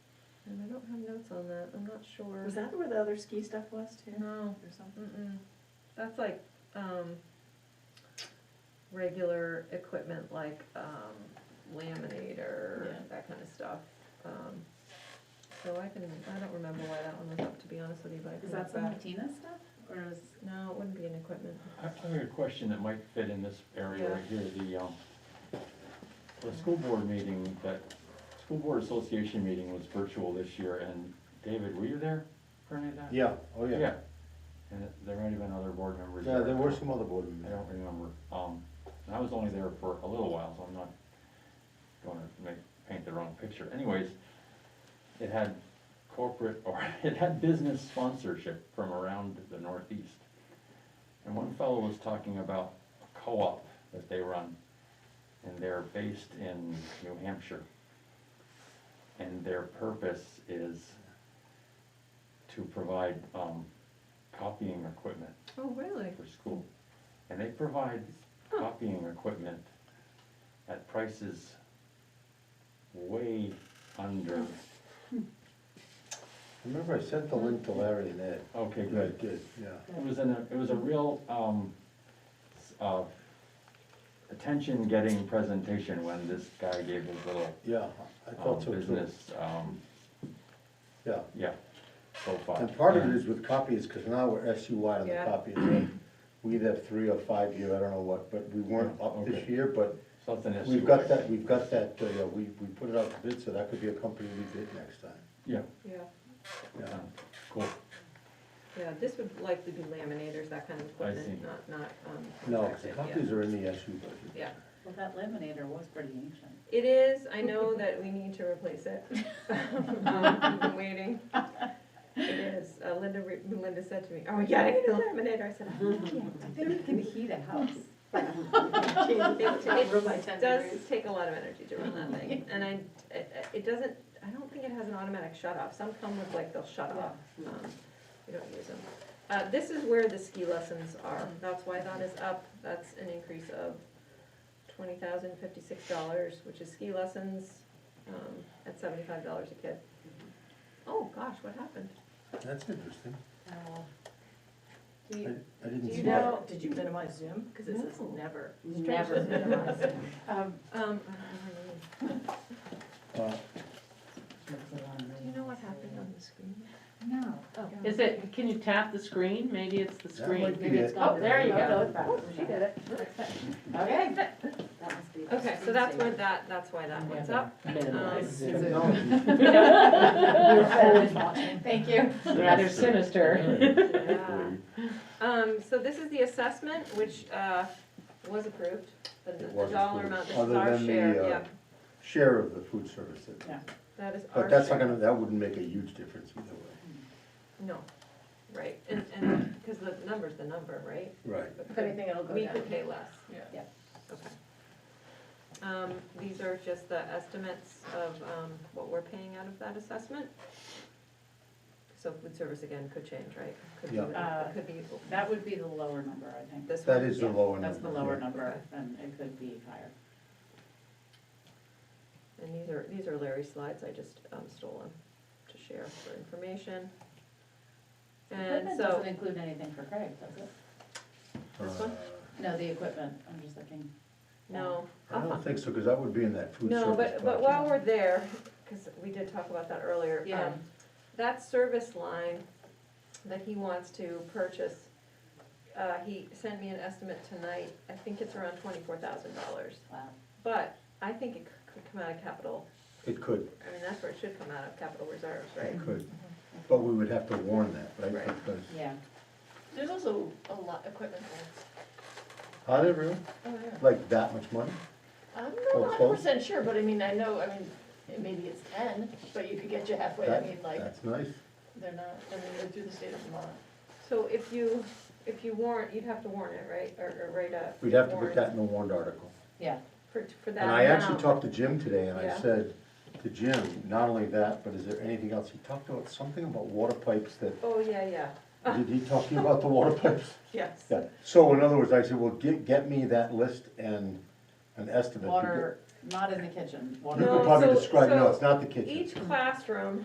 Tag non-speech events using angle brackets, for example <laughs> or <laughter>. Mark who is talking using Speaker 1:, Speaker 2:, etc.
Speaker 1: don't have notes on that, I'm not sure.
Speaker 2: Was that where the other ski stuff was too?
Speaker 1: No,
Speaker 2: Or something?
Speaker 1: mm-mm, that's like, um, regular equipment like, um, laminator,
Speaker 2: Yeah.
Speaker 1: that kinda stuff. Um, so I can, I don't remember why that one was up, to be honest with you, but I can
Speaker 2: Is
Speaker 1: look
Speaker 2: that some
Speaker 1: back.
Speaker 2: patina stuff, or is?
Speaker 1: No, it wouldn't be an equipment.
Speaker 3: I I have a question that might fit in this area right here, the, um, the school board meeting, that school board association meeting was virtual this year, and David, were you there for any of that?
Speaker 4: Yeah, oh yeah.
Speaker 3: Yeah, and there might have been other board members
Speaker 4: Yeah,
Speaker 3: there.
Speaker 4: there were some other board
Speaker 3: I
Speaker 4: members.
Speaker 3: don't remember, um, and I was only there for a little while, so I'm not gonna make, paint the wrong picture. Anyways, it had corporate, <laughs> or it had business sponsorship from around the Northeast. And one fellow was talking about a co-op that they run, and they're based in New Hampshire. And their purpose is to provide, um, copying equipment
Speaker 1: Oh, really?
Speaker 3: for school. And they provide copying equipment at prices way under,
Speaker 4: Remember I sent the link to Larry and Ed?
Speaker 3: okay,
Speaker 4: Yeah, I
Speaker 3: good.
Speaker 4: did, yeah.
Speaker 3: It was an, it was a real, um, s- uh, attention-getting presentation when this guy gave his little,
Speaker 4: Yeah, I
Speaker 3: um,
Speaker 4: thought so too.
Speaker 3: business, um,
Speaker 4: Yeah.
Speaker 3: yeah, profile.
Speaker 4: And part of it is with copies, because now we're SUI on the
Speaker 1: Yeah.
Speaker 4: copies. right? We either have three or five year, I don't know what, but we weren't up this
Speaker 3: Okay.
Speaker 4: year, but
Speaker 3: Something that's.
Speaker 4: we've got that, we've got that, uh, yeah, we, we put it out to bid, so that could be a company we bid next time.
Speaker 3: Yeah,
Speaker 1: Yeah,
Speaker 4: Yeah.
Speaker 3: uh, cool,
Speaker 1: yeah, this would likely be laminators, that kind of equipment,
Speaker 3: see.
Speaker 1: not, not, um.
Speaker 4: No, 'cause
Speaker 1: protected,
Speaker 4: the
Speaker 1: yeah.
Speaker 4: copies are in the SU budget.
Speaker 1: Yeah,
Speaker 2: Well, that laminator was pretty ancient.
Speaker 1: It is, I know that we need to replace it. Um, We've been waiting. It is, Uh, Linda, re- Linda said to me, oh, yeah, I need a laminator, I said, I don't know.
Speaker 5: I think it can heat a house.
Speaker 1: It-
Speaker 5: Not room by
Speaker 1: It
Speaker 5: 10
Speaker 1: does
Speaker 5: degrees.
Speaker 1: take a lot of energy to run that thing, and I, it- it doesn't, I don't think it has an automatic shut off, some come with like, they'll shut off. Um, We don't use them. Uh, this is where the ski lessons are, that's why that is up, that's an increase of twenty thousand fifty-six dollars, which is ski lessons, um, at seventy-five dollars a kid. Oh, gosh, what happened?
Speaker 4: That's interesting.
Speaker 5: Do
Speaker 4: I,
Speaker 5: you,
Speaker 4: I
Speaker 5: do
Speaker 4: didn't see
Speaker 5: you
Speaker 4: that.
Speaker 5: know,
Speaker 6: Did you minimize Zoom? Because it says
Speaker 1: No.
Speaker 6: never.
Speaker 5: never,
Speaker 2: <laughs>
Speaker 1: Um,
Speaker 5: um,
Speaker 1: I don't know her name.
Speaker 4: Uh,
Speaker 1: Do you know what happened on the screen?
Speaker 5: no. Oh,
Speaker 7: Is it, can you tap the screen? Maybe it's the
Speaker 4: That might
Speaker 7: screen.
Speaker 4: be it.
Speaker 7: Oh, there you
Speaker 5: Oh, no,
Speaker 7: go.
Speaker 5: it's back.
Speaker 7: it.
Speaker 5: Okay. That must be the
Speaker 1: Okay, so that's where
Speaker 5: screensaver.
Speaker 1: that, that's why that one's up.
Speaker 7: Minimize.
Speaker 1: Um,
Speaker 2: <laughs>
Speaker 7: <laughs>
Speaker 5: Thank you.
Speaker 7: Rather
Speaker 1: <laughs>
Speaker 4: <laughs>
Speaker 7: sinister.
Speaker 1: Yeah. Um, so this is the assessment, which, uh, was approved, the,
Speaker 4: It
Speaker 1: the
Speaker 4: was
Speaker 1: dollar
Speaker 4: approved.
Speaker 1: amount, this is
Speaker 4: Other
Speaker 1: our
Speaker 4: than the,
Speaker 1: share,
Speaker 4: uh,
Speaker 1: yeah,
Speaker 4: Share of the food service, that-
Speaker 2: Yeah.
Speaker 1: that is our share.
Speaker 4: but that's not gonna, that wouldn't make a huge difference either way.
Speaker 1: No, right, and, and, cause the number's the number, right?
Speaker 4: Right.
Speaker 1: But
Speaker 5: If anything, it'll go
Speaker 1: We
Speaker 5: down.
Speaker 1: could pay less.
Speaker 5: Yeah.
Speaker 1: Okay. Um, these are just the estimates of, um, what we're paying out of that assessment. So food service again could change, right? Could be
Speaker 4: Yeah.
Speaker 1: what-
Speaker 2: Uh,
Speaker 1: Could be
Speaker 2: That would be the lower number, I think.
Speaker 1: this one.
Speaker 4: That is the
Speaker 2: Yeah,
Speaker 4: lower number.
Speaker 2: That's the lower
Speaker 4: yeah.
Speaker 2: number, and it could be higher.
Speaker 1: And these are, these are Larry's slides, I just um, stole them to share for information. And
Speaker 2: Equipment
Speaker 1: so,
Speaker 2: doesn't include anything for Craig, does it?
Speaker 4: Uh,
Speaker 1: This one?
Speaker 2: No, the equipment, I'm just looking.
Speaker 1: no,
Speaker 4: Uh, I don't think so, because that would be in that food service.
Speaker 1: Uh-huh. no, but, but
Speaker 4: budget.
Speaker 1: while we're there, because we did talk about that earlier.
Speaker 2: Yeah.
Speaker 1: um, That service line that he wants to purchase, uh, he sent me an estimate tonight, I think it's around twenty-four thousand dollars.
Speaker 2: Wow.
Speaker 1: But I think it c- could come out of capital,
Speaker 4: It could,
Speaker 1: I mean, that's where it should come out of, capital reserves, right?
Speaker 4: it could, but we would have to warn that, right?
Speaker 1: Right.
Speaker 4: Because,
Speaker 2: Yeah.
Speaker 5: There's also a lot, equipment
Speaker 4: are they really,
Speaker 5: there. Oh, yeah.
Speaker 4: like that much money?
Speaker 5: I'm
Speaker 4: Oh,
Speaker 5: not hundred
Speaker 4: twelve?
Speaker 5: percent sure, but I mean, I know, I mean, it- maybe it's ten, but you could get you halfway, I
Speaker 4: That-
Speaker 5: mean, like,
Speaker 4: That's nice,
Speaker 5: they're not, I mean, they're through the state of Vermont.
Speaker 1: So if you, if you warrant, you'd have to warrant it, right, or, or write a.
Speaker 4: we'd have to put
Speaker 1: warrant
Speaker 4: that in the warrant article.
Speaker 2: Yeah.
Speaker 1: For, for that
Speaker 4: And I actually
Speaker 1: amount.
Speaker 4: talked to Jim today, and I
Speaker 1: Yeah.
Speaker 4: said to Jim, not only that, but is there anything else, he talked about something about water pipes
Speaker 1: <laughs>
Speaker 4: that,
Speaker 1: Oh, yeah, yeah,
Speaker 4: did he talk to you about the water pipes?
Speaker 1: yes.
Speaker 4: Yeah, so in other words, I said, well, get, get me that list and an estimate.
Speaker 2: Water, not in the kitchen, water.
Speaker 4: You
Speaker 1: No,
Speaker 4: could probably
Speaker 1: so-
Speaker 4: describe, no,
Speaker 1: so
Speaker 4: it's not the kitchen.
Speaker 1: Each classroom